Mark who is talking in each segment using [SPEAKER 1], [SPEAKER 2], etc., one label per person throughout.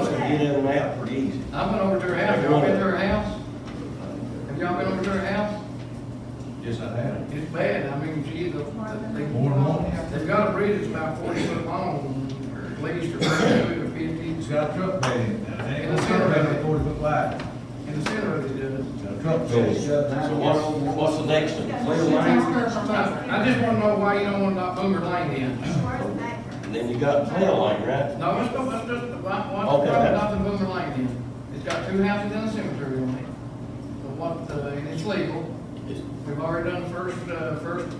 [SPEAKER 1] get in and out pretty easy.
[SPEAKER 2] I went over to her house, y'all been to her house? Have y'all been over to her house?
[SPEAKER 1] Yes, I have.
[SPEAKER 2] It's bad, I mean, she, the, they.
[SPEAKER 3] More than one.
[SPEAKER 2] They've got a bridge that's about forty foot long, or at least, or thirty-two, or fifty,
[SPEAKER 3] It's got a truck bed in it, now, it ain't
[SPEAKER 2] And
[SPEAKER 3] gonna
[SPEAKER 2] it's
[SPEAKER 3] turn
[SPEAKER 2] got a-
[SPEAKER 3] around at forty foot wide,
[SPEAKER 2] in the center of it, does.
[SPEAKER 3] It's got a truck bed.
[SPEAKER 1] So what's, what's the next one? Clear lane,
[SPEAKER 2] I I just wanna know why you don't wanna knock Boomer Lane in.
[SPEAKER 1] and then you got clear lane, right?
[SPEAKER 2] No, let's go, let's just, why, why,
[SPEAKER 1] Okay.
[SPEAKER 2] why not the Boomer Lane in? It's got two houses and a cemetery on it. But what, uh, and it's legal.
[SPEAKER 1] Is,
[SPEAKER 2] We've already done the first, uh, first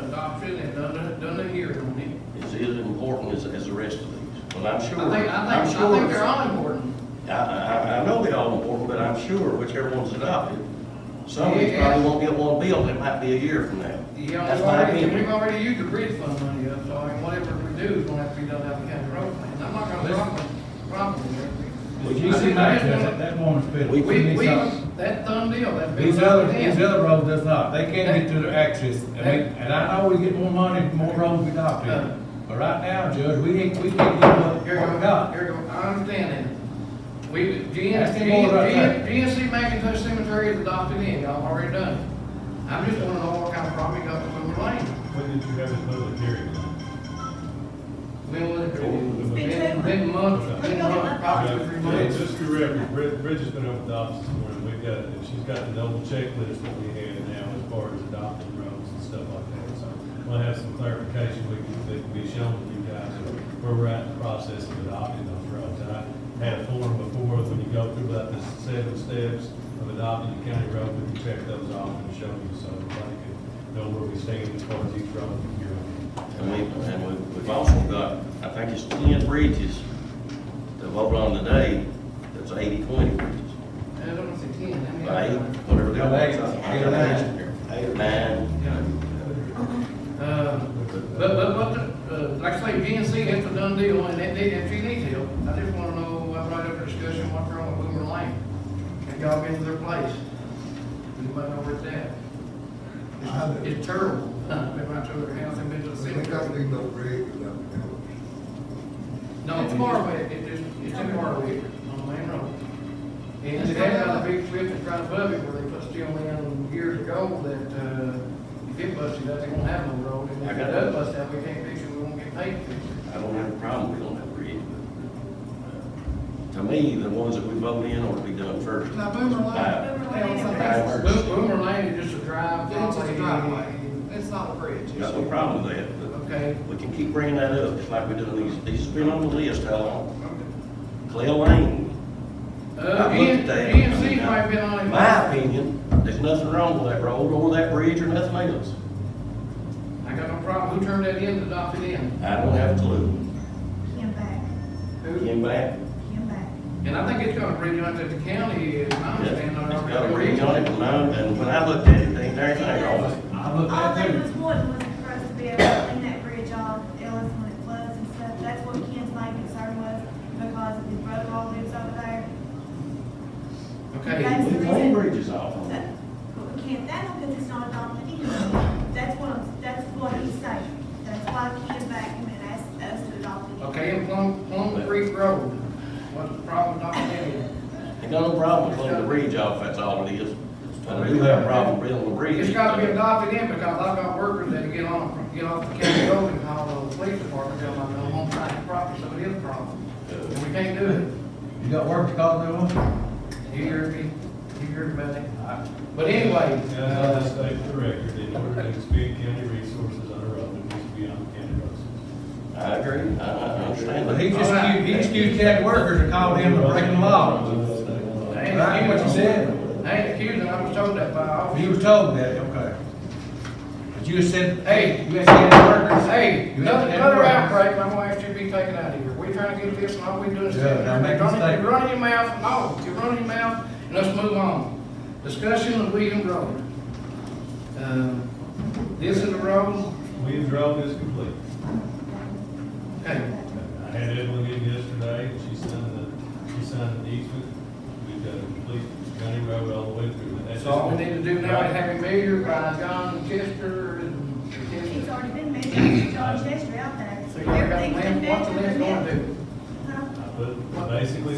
[SPEAKER 2] adoption and done, the- done the hearing on it.
[SPEAKER 1] is it as important as, as the rest of these? Well, I'm
[SPEAKER 2] I
[SPEAKER 1] sure,
[SPEAKER 2] think, I
[SPEAKER 1] I'm
[SPEAKER 2] think, I think they're
[SPEAKER 1] sure, I,
[SPEAKER 2] all important.
[SPEAKER 1] I, I know they're all important, but I'm sure whichever one's adopted, some of these
[SPEAKER 2] Yeah.
[SPEAKER 1] probably won't get one built, it might be a year from now.
[SPEAKER 2] Yeah,
[SPEAKER 1] That's
[SPEAKER 2] we've
[SPEAKER 1] my
[SPEAKER 2] already, we've
[SPEAKER 1] opinion.
[SPEAKER 2] already used the bridge fund money up, so I mean, whatever we do is gonna have to be done out of the county road plan. I'm not gonna problem, problem there.
[SPEAKER 3] The GC match, that, that woman's bid.
[SPEAKER 1] We-
[SPEAKER 2] We,
[SPEAKER 3] need
[SPEAKER 2] we,
[SPEAKER 3] something.
[SPEAKER 2] that done deal, that big.
[SPEAKER 3] These other,
[SPEAKER 2] deal.
[SPEAKER 3] these other roads does not, they can't get to their access, I mean, and I know we get more money, the more roads we got to. But right now, Judge, we ain't, we can't get what we
[SPEAKER 2] Here you go,
[SPEAKER 3] got.
[SPEAKER 2] here you go, I understand that. We,
[SPEAKER 3] That's the board right there.
[SPEAKER 2] GN, GNC McIntosh Cemetery is adopted in, y'all already done it. I'm just wanna know what kind of problem you got with Boomer Lane.
[SPEAKER 4] When did you have a public hearing?
[SPEAKER 2] Been with it,
[SPEAKER 4] It's
[SPEAKER 2] been,
[SPEAKER 5] been-
[SPEAKER 2] been months, been months, probably three
[SPEAKER 4] Yeah,
[SPEAKER 2] months.
[SPEAKER 4] Just for record, Brid- Bridget's been over the office this morning, we've got, and she's got the double checklist that we had now as far as adopting roads and stuff like that, so we'll have some clarification, we can, that can be shown to you guys, where we're at in the process of adopting those roads. And I had a form before, when you go through about the seven steps of adopting the county road, we can check those off and show you, so everybody can know where we stand as far as each road from here on.
[SPEAKER 1] And we, and we- we've also got, I think it's ten bridges that voted on today, that's eighty, twenty bridges.
[SPEAKER 2] I don't know if it's ten, I mean.
[SPEAKER 1] Eight, whatever they
[SPEAKER 3] Eight,
[SPEAKER 1] want.
[SPEAKER 3] eight or nine.
[SPEAKER 1] Eight or nine.
[SPEAKER 2] Yeah. Uh, But, but, but, uh, like I say, GNC, that's a done deal, and that, that, if you need help, I just wanna know, uh, right after discussion, what's wrong with Boomer Lane? Have y'all been to their place? Anybody know where it's at?
[SPEAKER 6] I have.
[SPEAKER 2] It's terrible. I've been right to their house, I've been to the
[SPEAKER 6] We don't
[SPEAKER 2] cemetery.
[SPEAKER 6] need no bridge without the county.
[SPEAKER 2] No, it's far away, it is, it's in far away, on Main Road. And they had a big strip that's right above it where they put steel in years ago that, uh, if it busted out, they won't have no road. And if it does bust out, we can't fix it, we won't get paid to fix it.
[SPEAKER 1] I don't have a problem, we don't have a bridge, but, uh, to me, the ones that we vote in ought to be done first.
[SPEAKER 7] Now, Boomer Lane, they own some
[SPEAKER 1] Boomer
[SPEAKER 7] bases.
[SPEAKER 1] Lane.
[SPEAKER 2] Boom- Boomer Lane is just a drive.
[SPEAKER 7] It's just a driveway, it's not a bridge.
[SPEAKER 1] Got no problem with that,
[SPEAKER 2] Okay.
[SPEAKER 1] but we can keep bringing that up, just like we do these, these has been on the list how long? Clay Lane,
[SPEAKER 2] Uh,
[SPEAKER 1] I've looked at that.
[SPEAKER 2] GNC might be on it.
[SPEAKER 1] my opinion, there's nothing wrong with that road or that bridge or nothing else.
[SPEAKER 2] I got no problem. Who turned that in to adopt it in?
[SPEAKER 1] I don't have a clue.
[SPEAKER 5] Him back,
[SPEAKER 2] Who?
[SPEAKER 1] Came back,
[SPEAKER 5] him back.
[SPEAKER 2] And I think it's got a bridge on it that the county is, I
[SPEAKER 1] yeah,
[SPEAKER 2] understand.
[SPEAKER 1] it's got a bridge on it, and I- and when I looked at it, there ain't anything wrong with it.
[SPEAKER 3] I looked
[SPEAKER 5] All
[SPEAKER 3] at
[SPEAKER 5] they was
[SPEAKER 3] it,
[SPEAKER 5] wanting was for us to be able to clean that bridge off, Ellis when it floods and stuff. That's what Ken's main concern was, because his brother all lives over there.
[SPEAKER 2] Okay.
[SPEAKER 1] We clean bridges off.
[SPEAKER 5] That- But we can't, that because it's not adopted either. That's what, I'm- that's what he's saying. That's why Ken back him and asked us to adopt it.
[SPEAKER 2] Okay, and Plum, Plum Creek Road, what's the problem adopting it in?
[SPEAKER 1] Ain't got no problem with cleaning the bridge off, that's all it is. And I do have a problem building the bridge.
[SPEAKER 2] It's got to be adopted in because I've got workers that get on, get off the county road and call the police department, tell them "Oh, I'm on private property, so it is a problem. And we can't do it.
[SPEAKER 3] you got work to call to them?
[SPEAKER 2] You hear me? You hear me, Benny?
[SPEAKER 3] I-
[SPEAKER 2] But anyway,
[SPEAKER 4] And I'll
[SPEAKER 2] uh,
[SPEAKER 4] just state for the record, in order to expend county resources on a road, it needs to be on county roads.
[SPEAKER 1] I agree, I, I understand.
[SPEAKER 3] But
[SPEAKER 1] that.
[SPEAKER 3] he just accused, he just accused Chad workers and called him of breaking the law.
[SPEAKER 2] I ain't
[SPEAKER 3] Right, what you
[SPEAKER 2] accusing,
[SPEAKER 3] said?
[SPEAKER 2] I ain't accusing, I was told that by
[SPEAKER 3] You
[SPEAKER 2] officers.
[SPEAKER 3] was told that, okay. But you said, hey, you had Chad workers.
[SPEAKER 2] Hey,
[SPEAKER 3] You had
[SPEAKER 2] another
[SPEAKER 3] Chad
[SPEAKER 2] another
[SPEAKER 3] workers.
[SPEAKER 2] outbreak, my wife should be taken out of here. We trying to get this, and all we doing is.
[SPEAKER 3] Yeah, now make a
[SPEAKER 2] Running-
[SPEAKER 3] statement.
[SPEAKER 2] You're running your mouth, no, you're running your mouth, and let's move on. Discussion of William Road. Um, This is the road,
[SPEAKER 4] Williams Road is complete.
[SPEAKER 2] okay,
[SPEAKER 4] I had Evelyn in yesterday, and she signed the, she signed the easement. We've got a complete county road all the way through. And that's
[SPEAKER 2] so all we need to do now is
[SPEAKER 4] Right.
[SPEAKER 2] have him measured by John Chester and
[SPEAKER 5] He's
[SPEAKER 2] Chester.
[SPEAKER 5] already been mentioned, John Chester out there.
[SPEAKER 2] So you got a
[SPEAKER 5] Everything's been
[SPEAKER 2] plan, what's the
[SPEAKER 5] mentioned
[SPEAKER 2] next one
[SPEAKER 5] and then-
[SPEAKER 2] do?
[SPEAKER 5] Huh?
[SPEAKER 4] I put- Basically,